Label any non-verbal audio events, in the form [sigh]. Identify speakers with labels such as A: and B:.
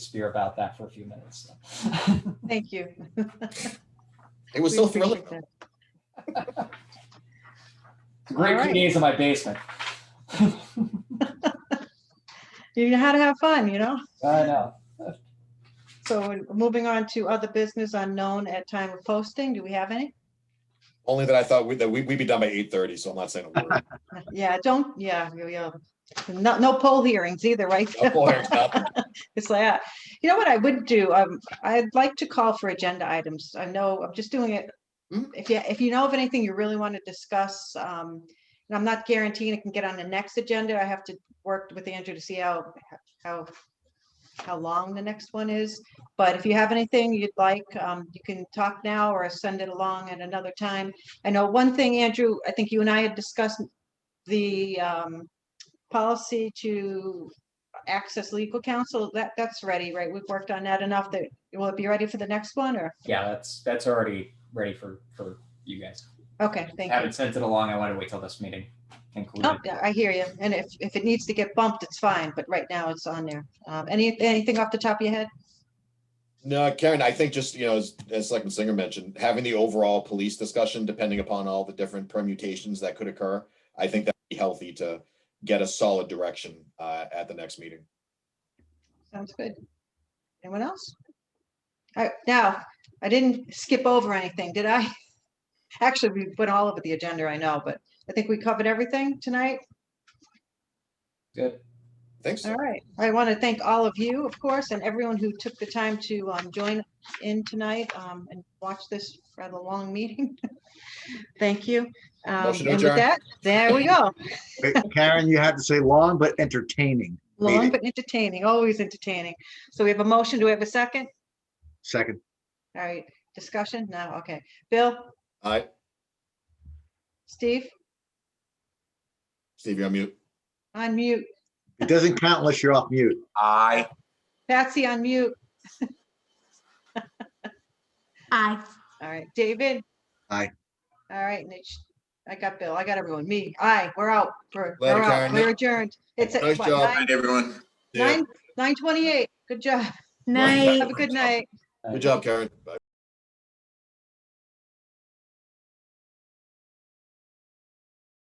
A: Shakespeare about that for a few minutes. [laughs]
B: Thank you.
C: It was
B: We
C: so
B: appreciate
C: thrilling.
B: that.
A: Great
B: All right.
A: few days in my basement. I
B: You know how to have fun, you know?
A: know.
B: So we're moving on to other business unknown at time of posting, do we have any?
C: Only that I thought we- that we- we'd be done by eight thirty, so I'm not saying a word. [laughs]
B: Yeah, don't, yeah, you- you- no, no poll hearings either, right?
C: No poll hearings, nothing.
B: It's like, ah, you know what I would do? Um, I'd like to call for agenda items. I know, I'm just doing it.
C: Mm.
B: If you, if you know of anything you really want to discuss, um, and I'm not guaranteeing it can get on the next agenda. I have to work with Andrew to see how, how, how long the next one is. But if you have anything you'd like, um, you can talk now or send it along at another time. I know one thing, Andrew, I think you and I had discussed the, um, policy to access legal counsel, that, that's ready, right? We've worked on that enough that, will it be ready for the next one or?
A: Yeah, that's, that's already ready for, for you guys.
B: Okay, thank you.
A: Haven't sent it along. I wanted to wait till this meeting
B: Oh,
A: concluded.
B: yeah, I hear you. And if, if it needs to get bumped, it's fine, but right now it's on there. Um, any, anything off the top of your head?
C: No, Karen, I think just, you know, as, as Selectman Singer mentioned, having the overall police discussion, depending upon all the different permutations that could occur, I think that'd be healthy to get a solid direction uh, at the next meeting.
B: Sounds good. Anyone else? All right, now, I didn't skip over anything, did I? [laughs] Actually, we went all over the agenda, I know, but I think we covered everything tonight.
A: Good.
C: Thanks.
B: All right. I want to thank all of you, of course, and everyone who took the time to um, join in tonight um, and watch this rather long [laughs] meeting. Thank you. Um,
C: Motion to
B: And with
C: adjourn.
B: that, there we
C: [laughs]
B: go.
D: Karen, you had to say long but entertaining.
B: Long
D: Meeting.
B: but entertaining, always entertaining. So we have a motion. Do we have a second?
D: Second,
B: All right, discussion? No, okay. Bill,
C: All right,
B: Steve,
C: Steve, you're on mute.
B: on mute.
D: it doesn't count unless you're off mute.
C: Aye.
B: Patsy, on mute.
E: Aye.
B: All right, David?
D: Aye.
B: All right, Mitch. I got Bill. I got everyone. Me. Aye, we're out. We're
C: Later,
B: we're out.
C: Karen.
B: We're adjourned. It's at
C: Nice
B: what,
C: job.
B: nine-
C: everyone.
B: Nine, nine twenty-eight. Good job.
E: Night.
B: Have a good night.
C: Good job, Karen. Bye.